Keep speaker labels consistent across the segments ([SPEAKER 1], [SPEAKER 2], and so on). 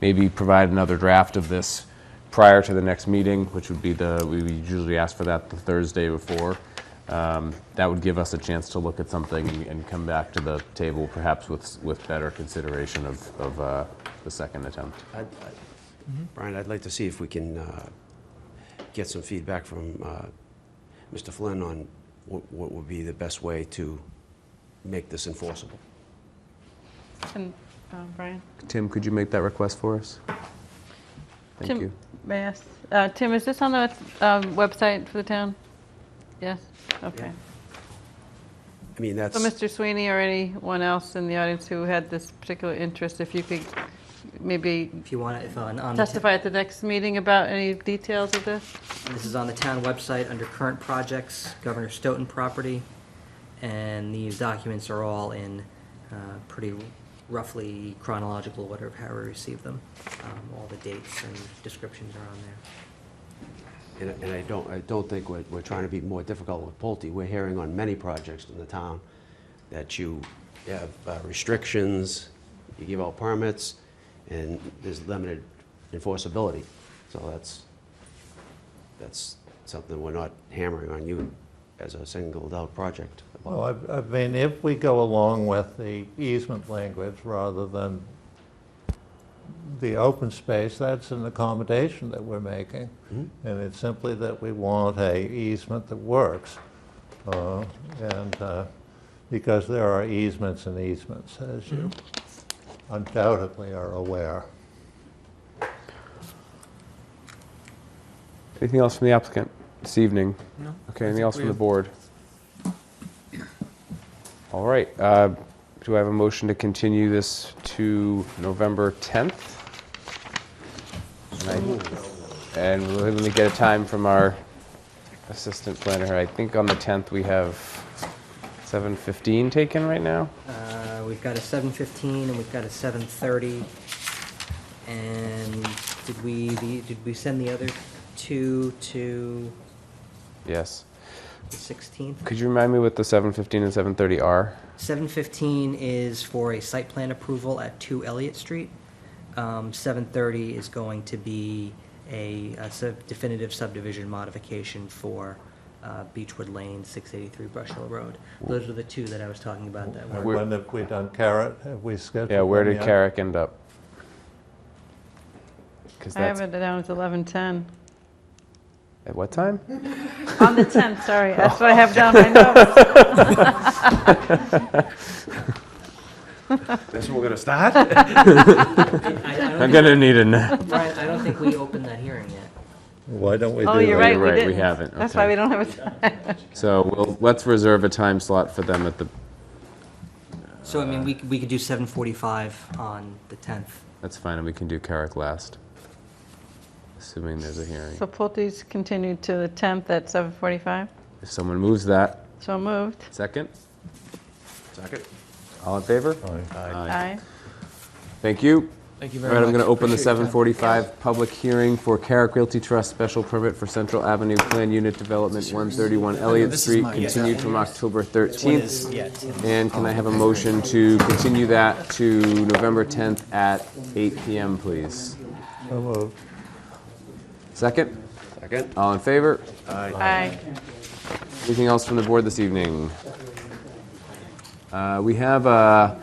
[SPEAKER 1] maybe provide another draft of this prior to the next meeting, which would be the, we usually ask for that the Thursday before. Um, That would give us a chance to look at something and come back to the table perhaps with, with better consideration of, of uh, the second attempt.
[SPEAKER 2] I'd- I'd- Brian, I'd like to see if we can uh, get some feedback from uh, Mr. Flynn on what what would be the best way to make this enforceable.
[SPEAKER 3] And, um, Brian?
[SPEAKER 1] Tim, could you make that request for us? Thank
[SPEAKER 3] Tim-
[SPEAKER 1] you.
[SPEAKER 3] May I ask, uh, Tim, is this on the um, website for the town? Yes, okay.
[SPEAKER 2] I mean, that's,
[SPEAKER 3] So Mr. Sweeney or anyone else in the audience who had this particular interest, if you could maybe
[SPEAKER 4] If you want, if uh, on, on the ta-
[SPEAKER 3] testify at the next meeting about any details of this?
[SPEAKER 4] this is on the town website under current projects, Governor Stoughton property, and these documents are all in uh, pretty roughly chronological order of how we received them. Um, All the dates and descriptions are on there.
[SPEAKER 2] and and I don't, I don't think we're we're trying to be more difficult with Pulte. We're hearing on many projects in the town that you have uh, restrictions, you give out permits, and there's limited enforceability. So that's, that's something we're not hammering on you as a singled out project.
[SPEAKER 5] Well, I, I mean, if we go along with the easement language rather than the open space, that's an accommodation that we're making.
[SPEAKER 1] Mm-hmm.
[SPEAKER 5] And it's simply that we want a easement that works. Uh, And, uh, because there are easements and easements, as you
[SPEAKER 1] Mm-hmm.
[SPEAKER 5] undoubtedly are aware.
[SPEAKER 1] Anything else from the applicant this evening?
[SPEAKER 6] No.
[SPEAKER 1] Okay,
[SPEAKER 6] I
[SPEAKER 1] anything
[SPEAKER 6] think
[SPEAKER 1] else from the
[SPEAKER 6] we've-
[SPEAKER 1] board? All right, uh, do I have a motion to continue this to November 10th? And I- And let me get a time from our assistant planner here. I think on the 10th, we have 7:15 taken right now?
[SPEAKER 4] Uh, We've got a 7:15 and we've got a 7:30. And did we, the- did we send the other two to
[SPEAKER 1] Yes.
[SPEAKER 4] the 16th?
[SPEAKER 1] Could you remind me what the 7:15 and 7:30 are?
[SPEAKER 4] 7:15 is for a site plan approval at 2 Elliott Street. Um, 7:30 is going to be a a sub- definitive subdivision modification for uh, Beechwood Lane, 683 Brush Hill Road. Those are the two that I was talking about that
[SPEAKER 5] And
[SPEAKER 4] were,
[SPEAKER 5] When have we done Carrot? Have we scheduled?
[SPEAKER 1] Yeah, where
[SPEAKER 5] them
[SPEAKER 1] did
[SPEAKER 5] yet?
[SPEAKER 1] Carrick end up? 'Cause
[SPEAKER 3] I have
[SPEAKER 1] that's-
[SPEAKER 3] it down as 11:10.
[SPEAKER 1] At what time?
[SPEAKER 3] On the 10th, sorry, that's what I have down, I know.
[SPEAKER 2] That's where we're going to start?
[SPEAKER 4] I I
[SPEAKER 1] I'm
[SPEAKER 4] don't
[SPEAKER 1] gonna need a nap.
[SPEAKER 4] think- Brian, I don't think we opened that hearing yet.
[SPEAKER 5] Why don't we do that?
[SPEAKER 3] Oh, you're right, we
[SPEAKER 1] right, we
[SPEAKER 3] didn't.
[SPEAKER 1] haven't,
[SPEAKER 3] That's
[SPEAKER 1] okay.
[SPEAKER 3] why we don't have a,
[SPEAKER 1] So we'll, let's reserve a time slot for them at the,
[SPEAKER 4] So I mean, we c- we could do 7:45 on the 10th.
[SPEAKER 1] that's fine, and we can do Carrick last. Assuming there's a hearing.
[SPEAKER 3] so Pulte's continued to the 10th at 7:45,
[SPEAKER 1] If someone moves that,
[SPEAKER 3] so moved.
[SPEAKER 1] second,
[SPEAKER 2] Second.
[SPEAKER 1] all in favor?
[SPEAKER 5] Aye.
[SPEAKER 3] Aye.
[SPEAKER 1] Thank you.
[SPEAKER 6] Thank you
[SPEAKER 1] All
[SPEAKER 6] very much.
[SPEAKER 1] right, I'm gonna open the
[SPEAKER 6] Appreciate your
[SPEAKER 1] seven
[SPEAKER 6] time.
[SPEAKER 1] forty-five public hearing for Carrick Realty Trust Special Permit for Central Avenue Plan Unit Development, one thirty-one Elliott
[SPEAKER 6] this is
[SPEAKER 1] Street,
[SPEAKER 6] mine. Yeah.
[SPEAKER 1] continued from October thirteenth.
[SPEAKER 6] Yeah,
[SPEAKER 1] And can I have a motion to continue that to November 10th at 8 PM, please?
[SPEAKER 5] So moved.
[SPEAKER 1] Second?
[SPEAKER 2] Second.
[SPEAKER 1] All in favor?
[SPEAKER 3] Aye.
[SPEAKER 1] Anything else from the board this evening? Uh, We have, uh,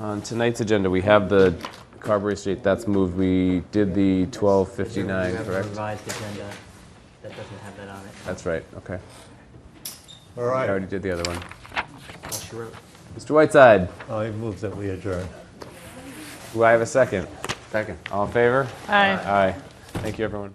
[SPEAKER 1] on tonight's agenda, we have the Carberry Street, that's moved. We did the
[SPEAKER 4] We
[SPEAKER 1] 1259,
[SPEAKER 4] have a
[SPEAKER 1] correct?
[SPEAKER 4] revised agenda that doesn't have that on it.
[SPEAKER 1] That's right, okay.
[SPEAKER 5] All
[SPEAKER 1] I
[SPEAKER 5] right,
[SPEAKER 1] already did the other one.
[SPEAKER 4] Well, she wrote-
[SPEAKER 1] Mr. Whiteside,
[SPEAKER 5] I move that we adjourn.
[SPEAKER 1] do I have a second?
[SPEAKER 2] Second.
[SPEAKER 1] All in favor?
[SPEAKER 3] Aye.
[SPEAKER 1] Aye. Thank you, everyone.